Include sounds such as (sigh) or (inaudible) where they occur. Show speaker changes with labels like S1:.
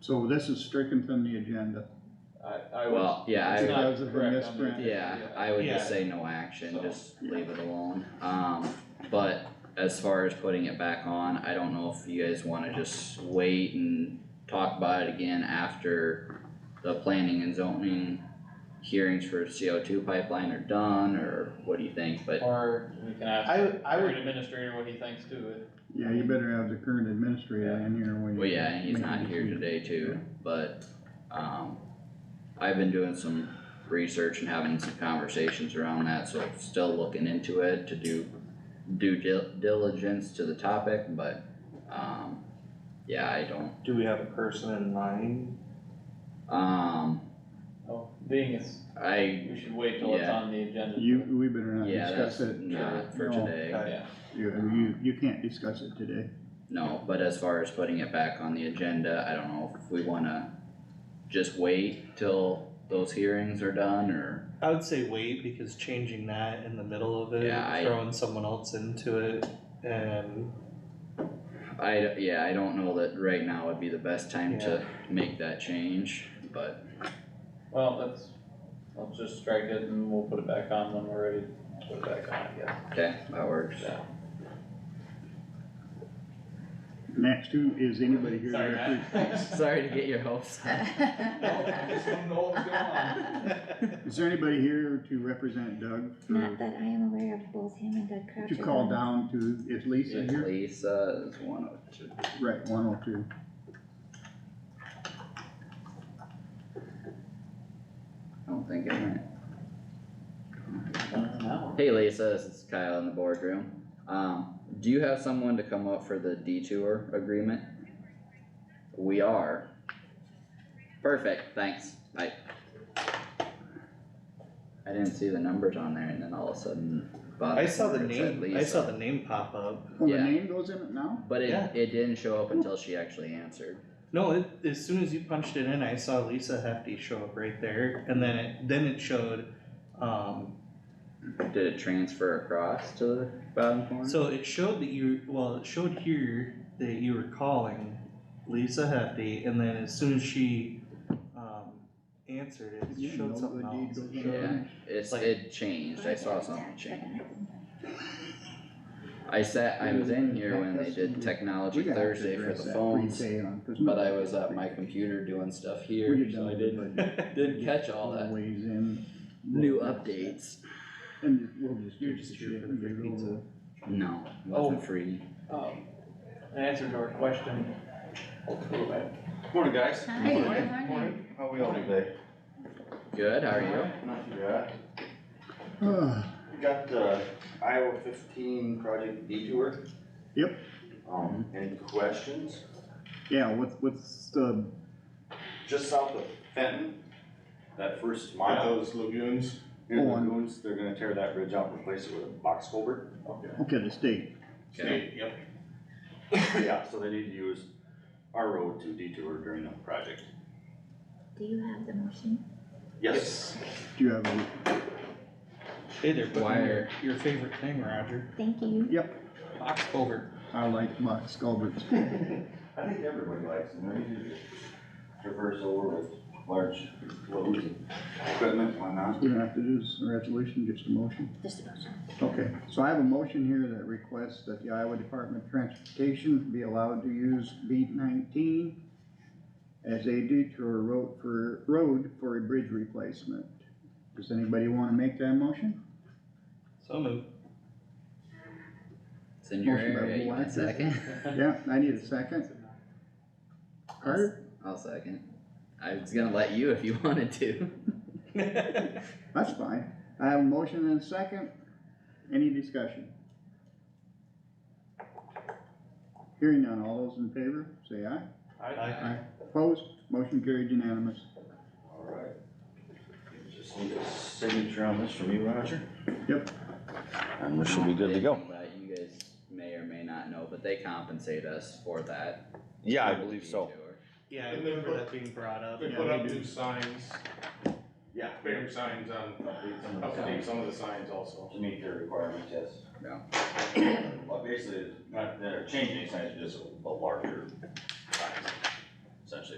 S1: So this is stricken from the agenda.
S2: I, I was.
S3: Well, yeah, I
S2: it's
S3: would-
S2: not
S1: Because of the
S2: correct on
S1: misprint.
S2: the-
S3: Yeah, I would just
S2: Yeah.
S3: say no action,
S2: So-
S3: just leave it alone, um, but as far as putting it back on, I don't know if you guys wanna just wait and talk about it again after the planning and zoning hearings for CO two pipeline are done, or what do you think, but
S2: Or we can ask
S4: I would, I
S2: our
S4: would,
S2: administrator what he thinks to it.
S1: Yeah, you better have the current administrator in here when you.
S3: Well, yeah, and he's
S1: make
S3: not
S1: the
S3: here
S1: decision.
S3: today too, but, um, I've been doing some research and having some conversations around that, so still looking into it to do due dil- diligence to the topic, but, um, yeah, I don't,
S5: Do we have a person in mind?
S3: um,
S2: Oh, being is,
S3: I,
S2: we should wait till it's
S3: Yeah.
S2: on the agenda.
S1: You, we better not
S3: yeah,
S1: discuss
S3: that's
S1: it.
S3: not for
S1: No,
S3: today,
S2: Yeah,
S1: You, you, you can't discuss it today.
S3: no, but as far as putting it back on the agenda, I don't know if we wanna just wait till those hearings are done, or
S5: I would say wait, because changing that in the middle of it,
S3: Yeah, I-
S5: throwing someone else into it,
S3: (laughs)
S5: and
S3: I, d- yeah, I don't know that right now would be the best time to make that change, but,
S2: well, let's, let's just strike it and we'll put it back on when we're ready. to Put it back on, I guess.
S3: okay, that works.
S2: Yeah.
S1: Next, who, is anybody here?
S2: Sorry,
S1: to
S2: (laughs) Matt.
S3: (laughs) Sorry to get your hopes up.
S2: don't know what's going on.
S1: repre- Is there anybody here to represent Doug? for-
S6: Not that I am aware of both him and Doug Crouch.
S1: To
S6: are
S1: call
S6: going.
S1: down to, is Lisa here?
S3: Lisa is one of two.
S1: Right, one oh two.
S3: I don't think I might.
S2: An hour.
S3: Hey Lisa, this is Kyle in the boardroom. Um, do you have someone to come up for the detour agreement? We are. Perfect, thanks, bye. I didn't see the numbers on there and then all of a sudden.
S5: I saw the
S3: Bob said
S5: name, I saw
S3: Lisa.
S5: the name pop up.
S1: Well, the
S3: Yeah.
S1: name goes in it now?
S3: But it,
S5: Yeah.
S3: it didn't show up until she actually answered.
S5: No, it, as soon as you punched it in, I saw Lisa Hefty show up right there, and then it, then it showed, um,
S3: Did it transfer across to the bottom corner?
S5: So it showed that you, well, it showed here that you were calling Lisa Hefty, and then as soon as she, um, answered it,
S1: You
S5: it
S1: know
S5: showed
S1: the
S5: something
S1: deed
S5: else.
S1: goes
S5: It
S1: on.
S5: showed-
S3: Yeah, it's,
S5: like-
S3: it changed, I saw something change. I sat, I was in here when they did Technology
S1: We gotta have to
S3: Thursday for
S1: address
S3: the
S1: that
S3: phones,
S1: pre-K on, 'cause
S3: but I
S1: nobody-
S3: was at my computer doing stuff
S1: We
S3: here,
S1: had
S3: so I
S1: done
S3: didn't,
S1: the budget
S3: didn't catch all that.
S1: Ways in.
S3: New updates.
S1: And we'll just.
S5: You're just here for the free pizza.
S3: No,
S2: Oh.
S3: wasn't free.
S2: Um, An answer to our question, hopefully, right?
S7: Morning, guys.
S6: Hi, good
S3: Morning.
S6: morning.
S7: How we all today?
S3: Good, how are you?
S7: Not too bad.
S1: Ah,
S7: We got the Iowa fifteen project detour.
S1: Yep.
S7: Um, any questions?
S1: (sighs) Yeah, what's, what's um, the,
S7: Just south of Fenton, that first mile.
S8: those lagoons.
S7: Near
S1: Oh,
S7: the
S1: on-
S7: lagoons, they're gonna tear that bridge out and replace it with a box culvert.
S1: okay, the state,
S3: Okay.
S8: Yep.
S7: (laughs) Yeah, so they need to use our road to detour during the project.
S6: Do you have the motion?
S7: Yes.
S1: do you have a,
S5: Hey, they're putting
S3: Wire.
S5: your, your favorite thing, Roger,
S6: Thank you.
S5: box culvert.
S1: I like Max Culverts. (laughs)
S7: I think everybody likes them, they're easy to traverse over with large loads and equipment, and whatnot.
S1: We don't have to do this in resolution, just a motion.
S6: Just a motion.
S1: Okay, so I have a motion here that requests that the Iowa Department of Transportation be allowed to use beat nineteen as a detour road for, road for a bridge replacement. Does anybody wanna make that motion?
S5: So moved.
S3: It's in your
S1: Motion by
S3: area, you want a
S1: Blacker.
S3: second?
S1: Yeah, I need a second. Carter,
S3: I'll second. I was gonna let you if you (laughs) wanted to.
S1: that's fine. I have a motion and a second. Any discussion? Hearing none, all those in favor, say aye.
S5: I,
S1: Opposed, motion carried unanimous.
S7: Alright. Just need a signature on this from you, Roger.
S1: Yep.
S7: And we should be good to go.
S3: But you guys may or may not know, but they compensate us for that.
S7: Yeah, I believe so.
S3: detour.
S5: yeah, I remember that being brought up.
S8: They
S1: Yeah,
S8: put
S1: they
S8: up
S1: do.
S8: new signs,
S7: Yeah.
S8: bigger signs on, update some of the signs also.
S7: To meet their requirements, yes. Well, basically, not, they're changing signs, just a larger size, essentially.